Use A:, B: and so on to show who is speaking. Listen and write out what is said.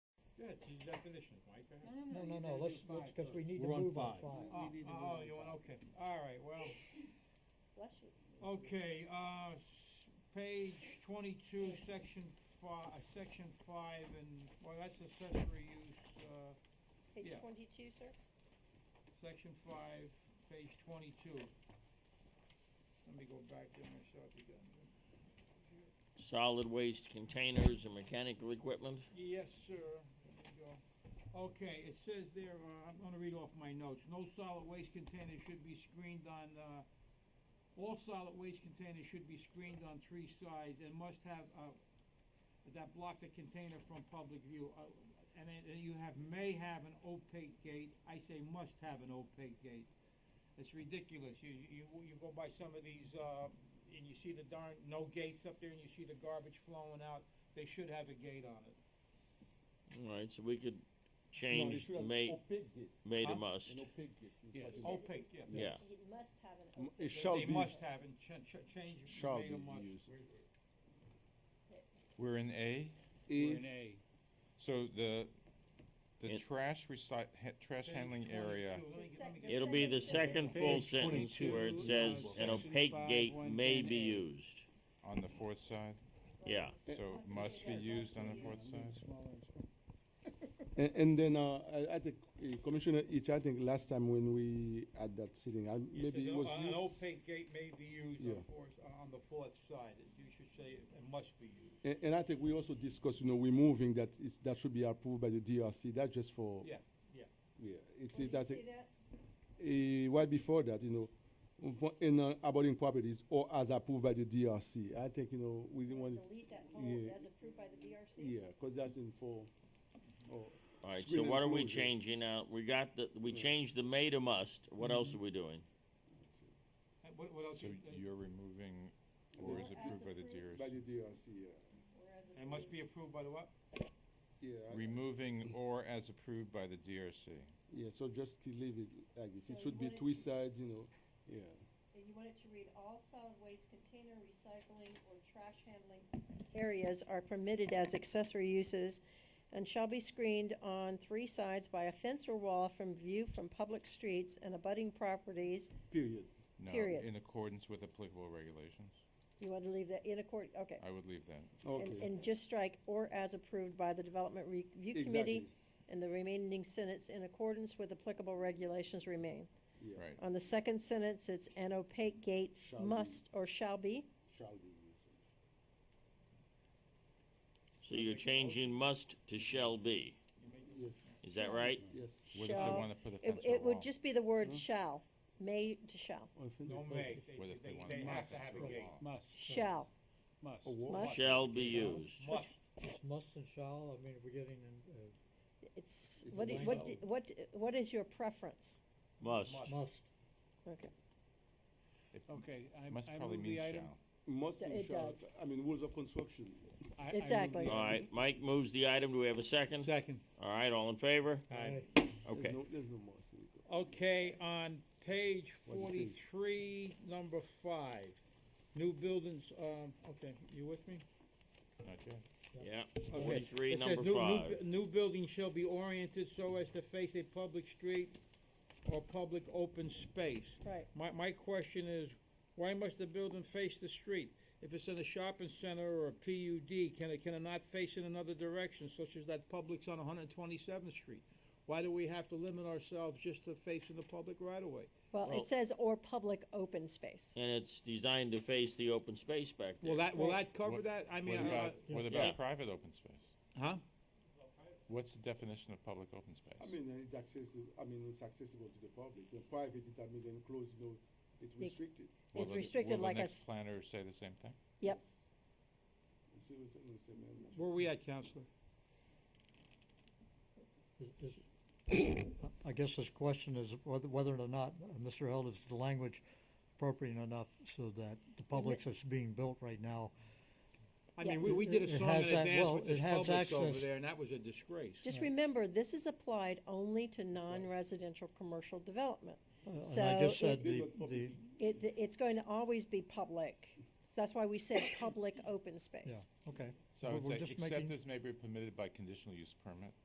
A: Go ahead, to the definition, Mike, go ahead.
B: No, no, no,
C: you
B: let's,
C: gotta do
B: let's,
C: five
B: cause we need to
D: We're on
B: move on
D: five.
B: five.
A: Oh,
C: We need to
A: oh,
C: move on
A: you want,
C: five.
A: okay, all right, well,
E: Bless you.
A: okay, uh, s- page twenty-two, section fi- uh, section five, and, well, that's accessory use, uh,
E: Page
A: Yeah.
E: twenty-two, sir?
A: section five, page twenty-two. Let me go back there myself again.
F: Solid waste containers and mechanical equipment.
A: Yes, sir. There you go. Okay, it says there, uh, I'm gonna read off my notes. No solid waste container should be screened on, uh, all solid waste containers should be screened on three sides and must have, uh, that block the container from public view. Uh, And then and you have, may have an opaque gate. I say must have an opaque gate. It's ridiculous. You, you, you go by some of these, uh, and you see the darn, no gates up there and you see the garbage flowing out. They should have a gate on it.
F: All right, so we could
D: No, it
F: change
D: should have
F: may,
D: opaque gate,
F: may to
D: huh?
F: must.
D: An opaque gate. You
C: Yes.
D: put it-
A: Opaque, yeah.
F: Yeah.
E: You must have an
D: M-
E: open.
A: They-
D: It shall
A: They
D: be,
A: must have and ch- ch- change it.
D: shall
A: made a
D: be
A: must.
D: used.
G: We're in A,
C: We're
D: E,
C: in A.
G: so the, the
F: It-
G: trash recy, ha- trash
A: Page
G: handling area,
A: 22. Let me get- let me get-
F: It'll be the
E: Second
F: second full
D: page
F: sentence
D: 22,
F: where it
C: uh,
F: says an
C: section
F: opaque
C: five,
F: gate
C: one
F: may
C: ten
F: be
C: A.
F: used.
G: on the fourth side,
F: Yeah.
G: so must be used on the fourth side?
D: and, and then, uh, I, I think uh, Commissioner Itch, I think last time when we had that sitting, I,
A: It
D: maybe
A: says "Oh,
D: it
A: an-
D: was
A: An
D: you.
A: opaque gate may be used
D: Yeah.
A: on fourth, on the fourth side. It- You should say it must be used.
D: And, and I think we also discussed, you know, removing that, it, that should be approved by the DRC, that's just for.
A: Yeah, yeah.
D: Yeah, it's,
E: Where do you
D: that's,
E: see that?
D: uh, right before that, you know, w- in uh, abutting properties or as approved by the DRC. I think, you know, we didn't want, it-
E: Delete that whole,
D: yeah.
E: as approved by the BRC?
D: yeah, because that's in for, oh,
F: All right, so
D: Screen
F: what are we
D: enclosure.
F: changing out? We got the, we changed the may to must. What else are we doing?
A: And What, what else?
G: So
A: you- uh,
G: you're removing, or is approved by the
D: by
G: DRC?
D: the DRC, yeah.
E: Whereas
A: It must be approved by the what?
D: Yeah, I-
G: Removing or as approved by the DRC.
D: yeah, so just to leave it like this.
E: So
D: It
E: you
D: should be
E: wanna-
D: three sides, you know, yeah.
E: And you want it to read, all solid waste container recycling or trash handling areas are permitted as accessory uses and shall be screened on three sides by a fence or wall from view from public streets and abutting properties.
D: Period.
G: No,
E: Period.
G: in accordance with applicable regulations.
E: You want to leave that in accord, okay.
G: I would leave that.
E: And,
D: Okay.
E: and just strike, or as approved by the Development Review Committee,
D: Exactly.
E: and the remaining sentence, in accordance with applicable regulations remain.
D: Yeah.
G: Right.
E: On the second sentence, it's an opaque gate
D: Shall be.
E: must or shall be.
D: Shall be used.
F: So you're changing must to shall be.
D: Yes.
F: Is that right?
D: Yes.
G: What if they
E: Shall-
G: wanna put a
E: It,
G: fence or
E: it would
G: wall?
E: just be the
D: Hmm?
E: word shall, may to shall,
A: No may. They,
G: What if they
A: they,
G: want
A: they have
G: must
A: to have a
G: or
A: gate.
G: wall?
C: Must.
E: shall.
C: Must.
E: Must.
F: Shall be used.
A: Must.
B: It's Oh, must and shall, I mean, we're getting uh, in,
E: It's,
D: It's
E: what,
D: a
E: do- what, do- what, what is your preference?
F: Must.
B: uh, must.
E: Okay,
G: It
C: Okay, I, I move
G: Must probably mean
C: the item.
G: shall.
D: Must
E: Th-
D: and
E: it
D: shall,
E: does.
D: I mean, rules of construction.
C: I- I move
E: Exactly.
C: the
F: All
C: item.
F: right, Mike moves the item. Do we have a second?
A: Second.
F: All right, all in favor?
B: Aye.
D: There's
F: Okay.
D: no- There's no must. in it.
A: Okay, on page
D: What it says.
A: forty-three, number five, new buildings, um, okay, you with me?
G: Not yet.
F: Yeah,
A: Okay.
F: forty-three,
A: It says
F: number
A: new- new
F: five.
A: bu- New building shall be oriented so as to face a public street or public open space.
E: right.
A: My, my question is, why must the building face the street? If it's in a shopping center or a PUD, can it, can it not face in another direction, such as that Publix on one hundred twenty-seventh Street? Why do we have to limit ourselves just to facing the public right away?
E: Well,
F: Well-
E: it says or public open space.
F: And it's designed to face the open space back there.
A: Will that, will
E: Right.
A: that cover
G: What-
A: that? I
G: What
A: mean, uh, I-
G: about, what
F: Yeah.
G: about private open space?
A: huh?
G: What's the definition of public open space?
D: I mean, uh, it's accessible, I mean, it's accessible to the public. In private, it, I mean, enclosed, you know, it's restricted.
G: Will
E: It's
G: the-
E: restricted like
G: Will
E: a
G: the next
E: s-
G: planner say the same thing?
E: Yep.
D: You see what I'm saying, man?
A: Where we at, Counselor?
B: Is- is- I guess this question is whether, whether or not, uh, Mr. Held, is the language appropriate enough so that the Publix that's being built right now
A: I mean, we, we did a
B: It
A: song
B: has
A: and a
B: that-
A: dance
B: well,
A: with this
B: it has
A: Publix over
B: access.
A: there, and that was a disgrace.
E: Just remember, this is applied only to non-residential commercial development.
B: Uh, And
E: So
B: I just
E: it-
B: said
D: They
B: the,
D: look public.
B: the,
E: It, it's going to always be public. So that's why we said public open
B: yeah,
E: space.
B: okay.
G: So I
B: We're-
G: would
B: we're
G: say,
B: just
G: except
B: making-
G: as may be permitted by conditional use permit.